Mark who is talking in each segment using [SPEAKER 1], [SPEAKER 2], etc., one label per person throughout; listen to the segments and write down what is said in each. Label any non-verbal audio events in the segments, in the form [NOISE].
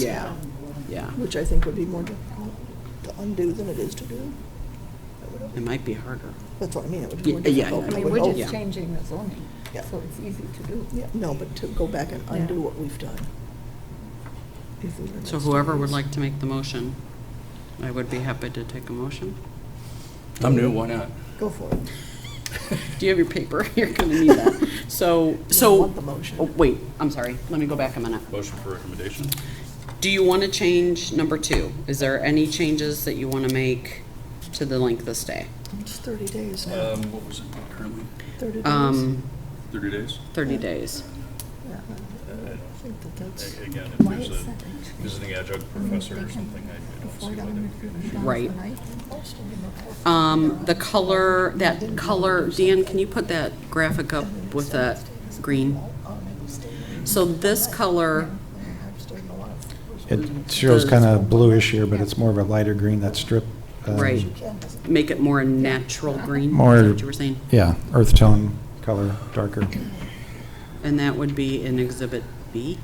[SPEAKER 1] Yeah, yeah.
[SPEAKER 2] which I think would be more difficult to undo than it is to do.
[SPEAKER 1] It might be harder.
[SPEAKER 2] That's what I mean, it would be more
[SPEAKER 1] Yeah, yeah,
[SPEAKER 2] difficult.
[SPEAKER 1] yeah.
[SPEAKER 3] I mean,
[SPEAKER 2] would
[SPEAKER 3] we're
[SPEAKER 2] hope.
[SPEAKER 3] just changing the zoning,
[SPEAKER 2] Oh, Yeah.
[SPEAKER 3] so it's easy to do.
[SPEAKER 2] Yeah, no, but to go back and undo
[SPEAKER 3] Yeah.
[SPEAKER 2] what we've done. if we were
[SPEAKER 1] So
[SPEAKER 2] next
[SPEAKER 1] whoever
[SPEAKER 2] to
[SPEAKER 1] would
[SPEAKER 2] this.
[SPEAKER 1] like to make the motion, I would be happy to take a motion.
[SPEAKER 4] I'm new, why not?
[SPEAKER 2] Go for it.
[SPEAKER 1] Do you have your paper? [LAUGHS] You're going to need that. So, so.
[SPEAKER 2] want the motion.
[SPEAKER 1] Oh, wait, I'm sorry. Let me go back a minute.
[SPEAKER 4] Motion for recommendation?
[SPEAKER 1] Do you want to change number two? Is there any changes that you want to make to the length of stay?
[SPEAKER 2] It's 30 days
[SPEAKER 1] Uh,
[SPEAKER 2] now,
[SPEAKER 4] Um, what was it currently?
[SPEAKER 2] 30 days.
[SPEAKER 1] Um,
[SPEAKER 4] Thirty days?
[SPEAKER 1] 30 days.
[SPEAKER 2] Yeah, I think that that's,
[SPEAKER 5] A- Again, if
[SPEAKER 3] Why
[SPEAKER 5] there's a
[SPEAKER 3] is that actually-
[SPEAKER 5] visiting adjunct professor or something, I I don't see why that would be an issue.
[SPEAKER 1] Right. Um, the color, that color, Dan, can you put that graphic up with that green?
[SPEAKER 2] Oh,
[SPEAKER 1] So this color,
[SPEAKER 6] It shows kind of bluish here, but it's more of a lighter green, that strip. um,
[SPEAKER 1] right, make it more a natural green, is
[SPEAKER 6] More-
[SPEAKER 1] that what you were saying?
[SPEAKER 6] Yeah, earth tone color, darker.
[SPEAKER 1] And that would be in Exhibit B?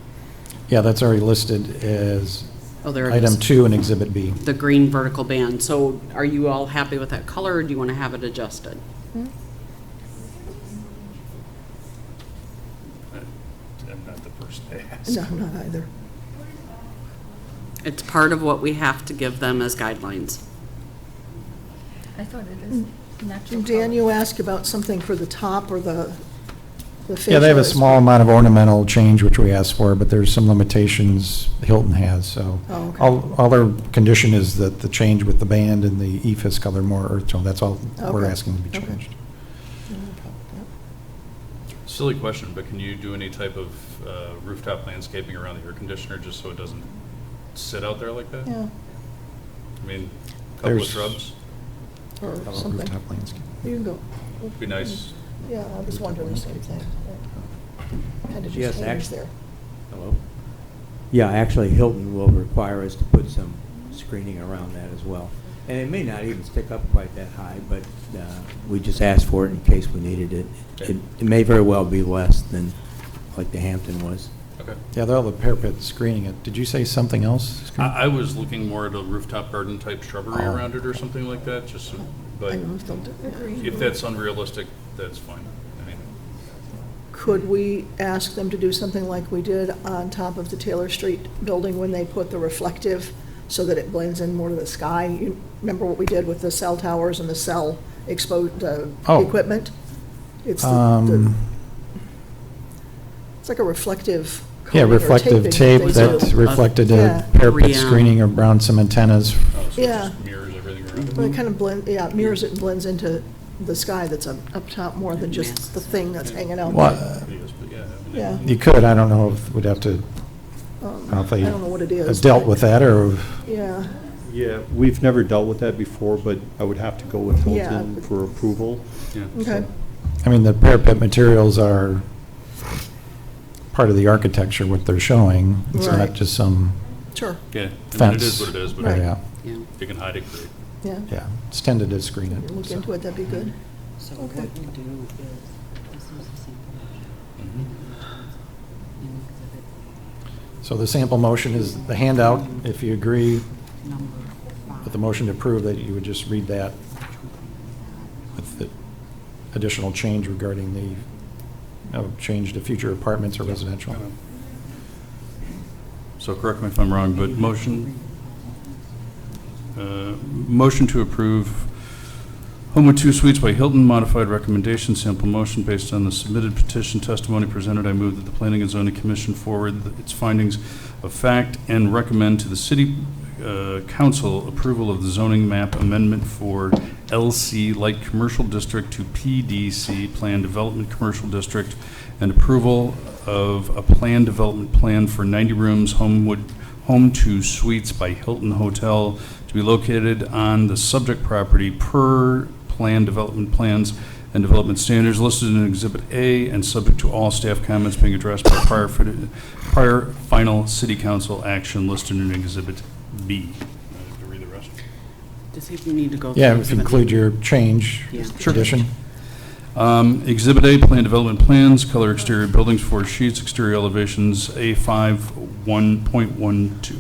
[SPEAKER 6] Yeah, that's already listed as
[SPEAKER 1] Oh, there it
[SPEAKER 6] item
[SPEAKER 1] is.
[SPEAKER 6] two in Exhibit B.
[SPEAKER 1] The green vertical band. So are you all happy with that color, or do you want to have it adjusted?
[SPEAKER 5] I- I'm not the person to ask.
[SPEAKER 2] no, not either.
[SPEAKER 1] It's part of what we have to give them as guidelines.
[SPEAKER 3] I thought it is natural.
[SPEAKER 2] Dan,
[SPEAKER 3] color.
[SPEAKER 2] you asked about something for the top or the, the
[SPEAKER 6] Yeah, they have a
[SPEAKER 2] facial
[SPEAKER 6] small
[SPEAKER 2] expression.
[SPEAKER 6] amount of ornamental change, which we asked for, but there's some limitations Hilton has, so.
[SPEAKER 2] Oh, okay.
[SPEAKER 6] All, all their condition is that the change with the band and the E EFS color more earth tone, that's all we're
[SPEAKER 2] Okay,
[SPEAKER 6] asking to be
[SPEAKER 2] okay.
[SPEAKER 6] changed.
[SPEAKER 4] Silly question, but can you do any type of uh, rooftop landscaping around the air conditioner just so it doesn't sit out there like that?
[SPEAKER 2] Yeah,
[SPEAKER 4] I mean, a couple of
[SPEAKER 6] There's-
[SPEAKER 4] shrubs,
[SPEAKER 6] How
[SPEAKER 2] or
[SPEAKER 6] about
[SPEAKER 2] something.
[SPEAKER 6] Rooftop landscape.
[SPEAKER 2] You can go.
[SPEAKER 4] be nice.
[SPEAKER 2] Yeah, I was wondering the same thing. Kind of
[SPEAKER 7] Yes,
[SPEAKER 2] just hangs
[SPEAKER 7] act-
[SPEAKER 2] there.
[SPEAKER 7] Hello? Yeah, actually Hilton will require us to put some screening around that as well. And it may not even stick up quite that high, but uh, we just asked for it in case we needed it. It it may very well be less than like the Hampton was.
[SPEAKER 4] Okay.
[SPEAKER 6] Yeah, they'll have a parapet screening it. Did you say something else?
[SPEAKER 4] I, I was looking more at a rooftop garden type shrubbery
[SPEAKER 6] Oh.
[SPEAKER 4] around it or something like that, just, so-
[SPEAKER 2] I
[SPEAKER 4] but
[SPEAKER 2] don't know if they'll do it.
[SPEAKER 4] if that's unrealistic, that's fine. I mean,
[SPEAKER 2] Could we ask them to do something like we did on top of the Taylor Street building when they put the reflective so that it blends in more to the sky? You Remember what we did with the cell towers and the cell exposed, uh,
[SPEAKER 6] Oh.
[SPEAKER 2] equipment? It's the- the,
[SPEAKER 6] Um,
[SPEAKER 2] it's like a reflective
[SPEAKER 6] Yeah,
[SPEAKER 2] coating or taping
[SPEAKER 6] reflective tape
[SPEAKER 2] they
[SPEAKER 6] that
[SPEAKER 2] do.
[SPEAKER 6] reflected
[SPEAKER 2] Yeah.
[SPEAKER 6] a parapet
[SPEAKER 1] Three, um,
[SPEAKER 6] screening around some antennas.
[SPEAKER 4] oh, so it
[SPEAKER 2] Yeah.
[SPEAKER 4] just mirrors everything around it.
[SPEAKER 2] But it kind of blend, yeah, it mirrors it and blends into the sky that's up, up top more than
[SPEAKER 1] Yes.
[SPEAKER 2] just the thing that's hanging out.
[SPEAKER 6] Well,
[SPEAKER 2] there.
[SPEAKER 6] uh,
[SPEAKER 4] It is, but yeah, I mean,
[SPEAKER 2] Yeah.
[SPEAKER 6] You could, I don't know if we'd have to,
[SPEAKER 2] Um,
[SPEAKER 6] I don't
[SPEAKER 2] I
[SPEAKER 6] think
[SPEAKER 2] don't know what it is.
[SPEAKER 6] have dealt with that or,
[SPEAKER 2] Yeah,
[SPEAKER 8] Yeah, we've never dealt with that before, but I would have to go with
[SPEAKER 2] Yeah.
[SPEAKER 8] Hilton for approval.
[SPEAKER 4] yeah.
[SPEAKER 2] okay.
[SPEAKER 6] I mean, the parapet materials are part of the architecture, what they're showing. It's
[SPEAKER 2] Right.
[SPEAKER 6] not just some,
[SPEAKER 2] Sure,
[SPEAKER 4] Yeah, I mean, it
[SPEAKER 6] Fence.
[SPEAKER 4] is what it is, but
[SPEAKER 2] Right.
[SPEAKER 6] yeah,
[SPEAKER 1] Yeah.
[SPEAKER 4] you can hide it great.
[SPEAKER 2] yeah.
[SPEAKER 6] yeah, it's tended to screen it.
[SPEAKER 2] Look
[SPEAKER 6] so.
[SPEAKER 2] into it, that'd be good.
[SPEAKER 1] So
[SPEAKER 2] Okay.
[SPEAKER 1] what we do is, this is a sample
[SPEAKER 4] Mm-hmm.
[SPEAKER 1] in Exhibit
[SPEAKER 6] So the sample motion is the handout. If you agree
[SPEAKER 1] number
[SPEAKER 6] with
[SPEAKER 1] five.
[SPEAKER 6] the motion to approve, that you would just read that with the additional change regarding the, no, change to future apartments or residential.
[SPEAKER 4] So correct me if I'm wrong, but motion, uh, motion to approve Home with Two Suites by Hilton, modified recommendation, sample motion based on the submitted petition testimony presented. I move that the Planning and Zoning Commission forward th- its findings of fact and recommend to the city uh, council approval of the zoning map amendment for LC Light Commercial District to PDC Plan Development Commercial District and approval of a plan development plan for 90 rooms Homewood, Home to Suites by Hilton Hotel to be located on the subject property per plan development plans and development standards listed in Exhibit A and subject to all staff comments being addressed by prior, fit- prior final city council action listed in Exhibit B. Uh, to read the rest.
[SPEAKER 1] Does he need to go?
[SPEAKER 6] Yeah,
[SPEAKER 1] through
[SPEAKER 6] if
[SPEAKER 1] Exhibit
[SPEAKER 6] you include your change
[SPEAKER 1] Yeah. Sure.
[SPEAKER 6] condition.
[SPEAKER 4] Um, Exhibit A, plan development plans, color exterior buildings, four sheets, exterior elevations, A5, 1.12.